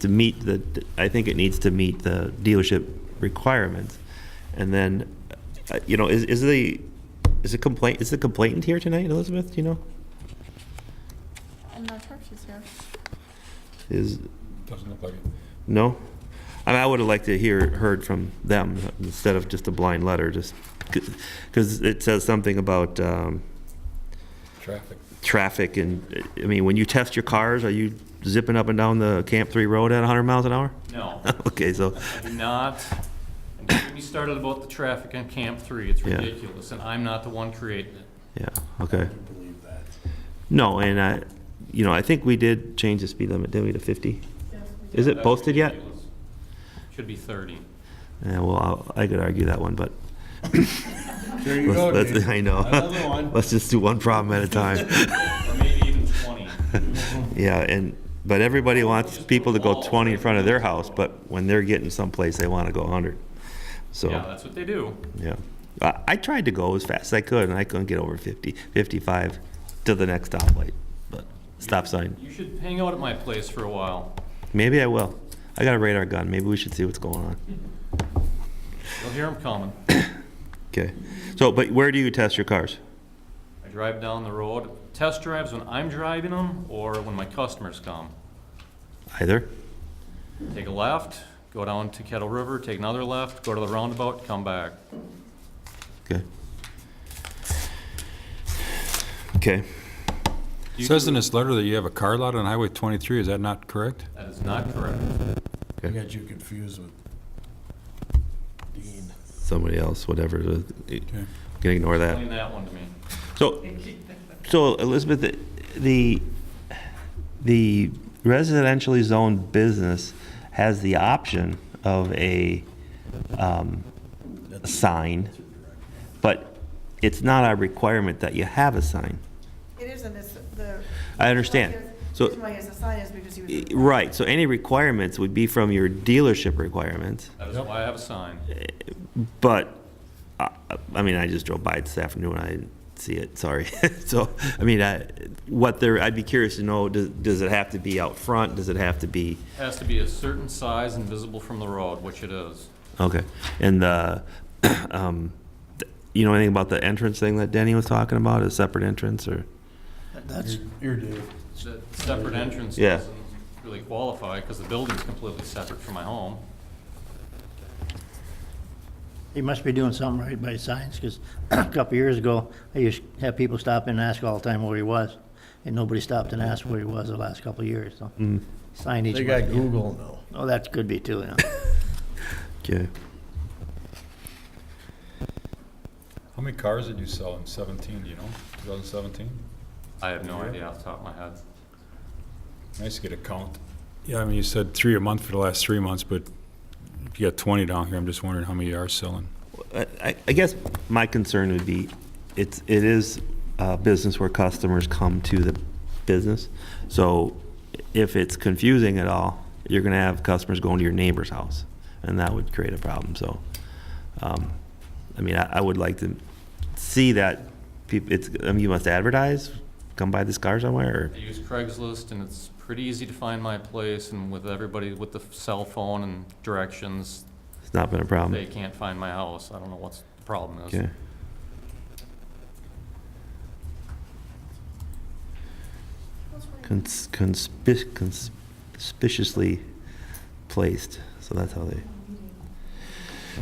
to meet the, I think it needs to meet the dealership requirements. And then, uh, you know, is, is the, is the complaint, is the complainant here tonight, Elizabeth, do you know? I'm not sure if she's here. Is, Doesn't look like it. no? I mean, I would have liked to hear, heard from them instead of just a blind letter, just, because it says something about, um, Traffic. traffic and, I mean, when you test your cars, are you zipping up and down the Camp Three Road at hundred miles an hour? No, Okay, so, I do not. And don't get me started about the traffic on Camp Three. It's Yeah. ridiculous, and I'm not the one creating it. yeah, okay. No, and I, you know, I think we did change the speed limit, didn't we, to 50? Is it That's posted yet? ridiculous. Should be thirty. Yeah, well, I'll- I could argue that one, but There you go, let's, let's- Dave. I know. Another one. Let's just do one problem at a time. Or maybe even 20. Yeah, and, but everybody wants people to go 20 in front of their house, but when they're getting someplace, they want to go 100. Yeah, So, that's what they do. yeah. I, I tried to go as fast as I could, and I couldn't get over 50, 55 to the next stoplight, but stop sign. You should hang out at my place for a while. Maybe I will. I got a radar gun. Maybe we should see what's going on. You'll hear them coming. Okay. So, but where do you test your cars? I drive down the road, test drives when I'm driving them or when my customers come. Either? Take a left, go down to Kettle River, take another left, go to the roundabout, come back. Okay. Okay. You Says do- in this letter that you have a car lot on Highway 23, is that not correct? That is not correct. I got you confused with Dean. Somebody else, whatever. the- You Okay. can ignore that. Explain that one to me. So, so Elizabeth, the- the, the residentially zoned business has the option of a, um, a sign, but it's not a requirement that you have a sign. It isn't, it's the. I understand. The So. reason why it's a sign is because he was. Right, so any requirements would be from your dealership requirements, That is why I have a sign. but, uh, I mean, I just drove by it this afternoon, I didn't see it, sorry. So, I mean, I, what there, I'd be curious to know, does, does it have to be out front, does it have to be, Has to be a certain size and visible from the road, which it is. okay. And the, um, you know anything about the entrance thing that Denny was talking about, a separate entrance, or? That's. Your dude. The separate entrance Yeah. doesn't really qualify because the building's completely separate from my home. He must be doing something right by signs, because a couple years ago, I used to have people stop in and ask all the time where he was, and nobody stopped and asked where he was the last couple of years, so. Signage. They must got be- Google now. Oh, that could be too, yeah. Okay. How many cars did you sell in 17, do you know, 2017? I have no idea off the top of my head. Nice to get a count. Yeah, I mean, you said three a month for the last three months, but if you got 20 down here, I'm just wondering how many you are selling. I, I- I guess my concern would be, it's, it is a business where customers come to the business. So if it's confusing at all, you're gonna have customers going to your neighbor's house, and that would create a problem, so. um, I mean, I, I would like to see that, peop- it's, I mean, you must advertise, come buy this car somewhere, I use Craigslist and it's pretty easy to find my place and with everybody with the cell phone and directions, or it's not been a problem. they can't find my house. I don't know what's the problem is. Um, Okay. Cons- conspic- conspicuously placed, so that's how they.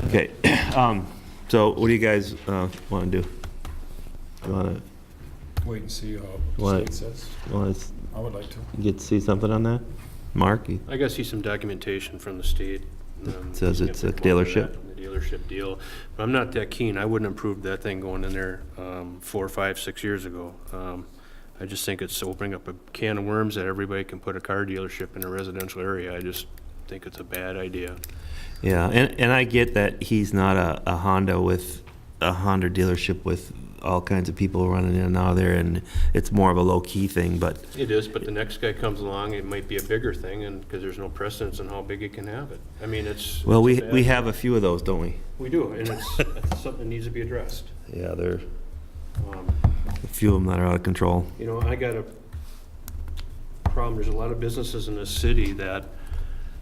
Okay, um, so what do you guys, uh, wanna do? You Wanna, Wait and see how What? it says. wanna s- I would like to. get to see something on that? Mark, you- I gotta see some documentation from the state. um, Says it's a if they want that dealership? in The dealership deal. But I'm not that keen. I wouldn't approve that thing going in there um, four, five, six years ago. Um, I just think it's opening up a can of worms that everybody can put a car dealership in a residential area. I just think it's a bad idea. yeah, and, and I get that he's not a, a Honda with, a Honda dealership with all kinds of people running in and out of there, and it's more of a low-key thing, but It is, but the next guy comes along, it might be a bigger thing, and, because there's no precedence on how big it can have it. I mean, it's. Well, we, it's a bad- we have a few of those, don't we? We do, and it's, it's something that needs to be addressed. Yeah, there are Um, a few of them that are out of control. You know, I got a problem, there's a lot of businesses in this city that